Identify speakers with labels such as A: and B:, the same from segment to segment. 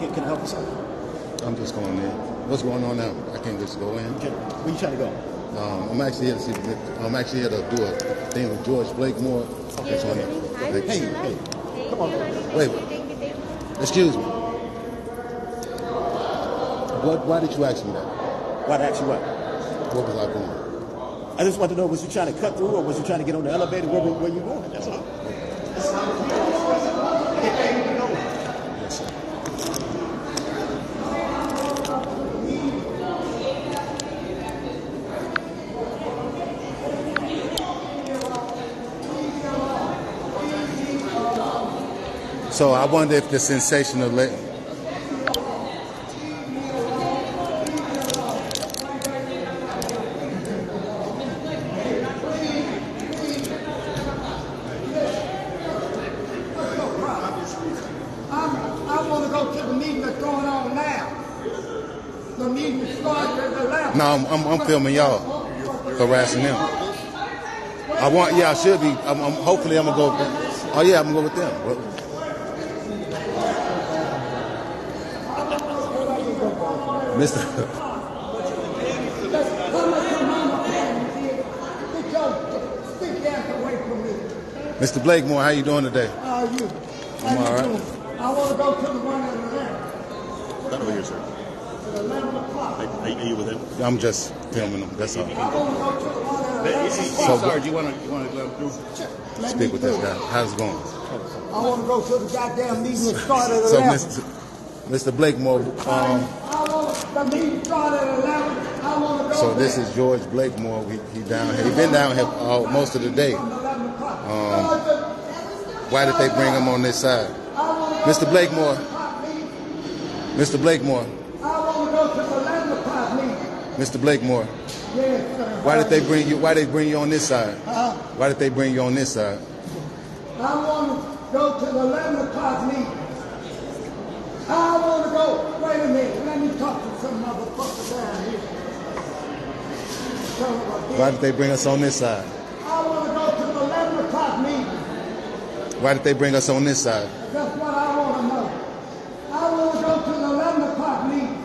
A: you can help us out.
B: I'm just going in. What's going on now? I can't just go in.
A: Okay, where you trying to go?
B: Um, I'm actually here to see. I'm actually here to do a thing with George Blakemore. That's on
C: Hi,
B: it.
C: Priscilla.
B: Hey,
A: hey,
C: Thank
A: come on,
C: you, honey.
B: wait.
C: Thank you, thank you, thank you.
B: excuse me. What? Why did you ask me that?
A: Why did I ask you what?
B: What was I doing?
A: I just want to know, was you trying to cut through or was you trying to get on the elevator? Where, were- where you going? That's all.
B: Yes, sir. So I wonder if the sensation of let.
D: I'm, I want to go to the meeting that's going on now. The meeting starts at eleven.
B: No, I'm, I'm, I'm filming y'all harassing them. I want, yeah, I should be. I'm, I'm hopefully I'm gonna go. Oh yeah, I'm gonna go with them. What- Mister,
D: Come and come on, my family, kid. Get your stick ass away from me.
B: Mr. Blakemore, how you doing today?
D: How are you?
B: I'm all
D: How you
B: right.
D: doing? I want to go to the one at eleven,
E: Not over here, sir.
D: at eleven o'clock.
E: Are, are you with him?
B: I'm just filming them. That's all.
D: I want to go to the one at eleven.
B: So-
E: Sarge, you want to you want to go through?
D: Let me
B: Speak with this
D: through.
B: guy. How's it going?
D: I want to go to the goddamn meeting that started at
B: So,
D: eleven.
B: Mr. Mr. Blakemore, um,
D: I want, the meeting started at eleven. I want to go.
B: so this
D: there
B: is George Blakemore. He, he down here. He been down here all, most of the day.
D: from Eleven
B: um,
D: o'clock.
B: Why did they bring him on this side? Mr. Blakemore. Mr. Blakemore.
D: I want to go to the eleven o'clock meeting.
B: Mr. Blakemore.
D: Yes, sir. Uh,
B: Why did they bring you why they bring you on this side? Why did they bring you on this side?
D: I want to go to the 11 o'clock meeting. I want to go, wait a minute, let me talk to some motherfucker down here. Son of a bitch.
B: Why did they bring us on this side?
D: I want to go to the 11 o'clock meeting.
B: Why did they bring us on this side?
D: That's what I want to know. I want to go to the 11 o'clock meeting.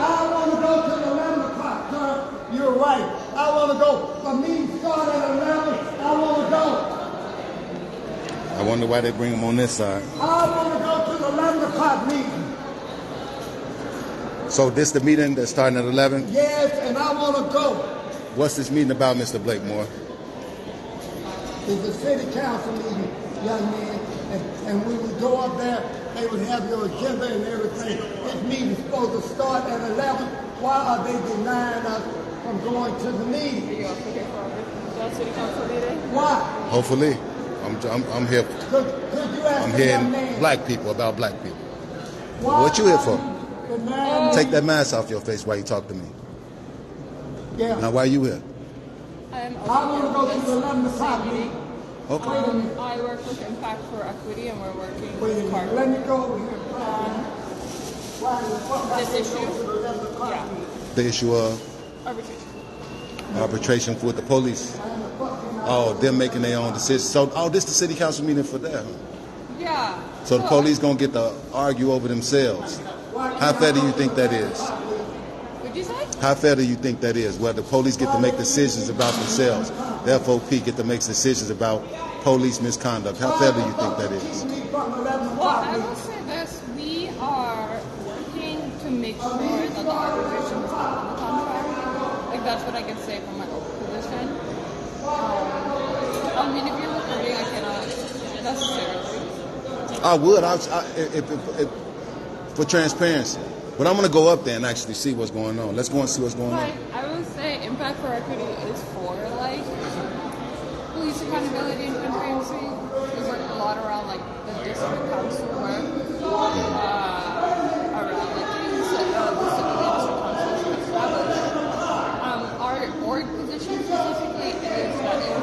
D: I want to go to the 11 o'clock, sir. You're right. I want to go. The meeting started at 11. I want to go.
B: I wonder why they bring him on this side.
D: I want to go to the 11 o'clock meeting.
B: So this the meeting that's starting at eleven?
D: Yes, and I want to go.
B: What's this meeting about, Mr. Blakemore?
D: It's a city council meeting, young man, and, and we would go up there. They would have your agenda and everything. This meeting's supposed to start at 11. Why are they denying us from going to the meeting? Why?
B: Hopefully. I'm I'm, I'm here
D: Could, could you ask
B: I'm
D: the young
B: hearing
D: man?
B: black people about black people.
D: why
B: what you here for?
D: are you denying-
B: Take that mask off your face while you talk to me.
D: Yeah.
B: Now why you here?
F: I'm also
D: I want to go to the 11 o'clock meeting.
B: Okay.
F: Um, I work with Impact for Equity and we're working
D: Wait a
F: with
D: minute,
F: Carver.
D: let me go over here. Why the fuck I
F: This
D: didn't go
F: issue?
D: to the 11 o'clock
F: Yeah.
D: meeting?
B: The issue of
F: Arbitration.
B: arbitration with the police. Oh, they're making their own decisions. So, oh, this the city council meeting for them.
F: Yeah.
B: So the police gonna get to argue over themselves. How fair do you think that is?
F: Would you say?
B: How fair do you think that is? Where the police get to make decisions about themselves, the FOP get to make decisions about police misconduct. How fair do you think that is?
F: Well, I will say this. We are working to make sure that the arbitration is not on the contract. Like, that's what I can say from my own position. Um, I mean, if you're recording, I cannot necessarily.
B: I would. I, I, if, if, if, for transparency. But I'm gonna go up there and actually see what's going on. Let's go and see what's going on.
F: But I will say Impact for Equity is for like police accountability and transparency. We work a lot around like the district council work, uh, around like things that uh, the city district council should establish. Um, our org position specifically is that if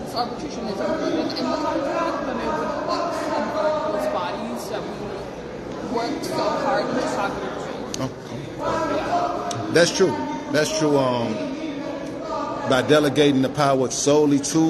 F: this arbitration is included in the contract, then it would like subvert those bodies that we worked so hard to talk about.
B: That's true. That's true. Um, by delegating the power solely to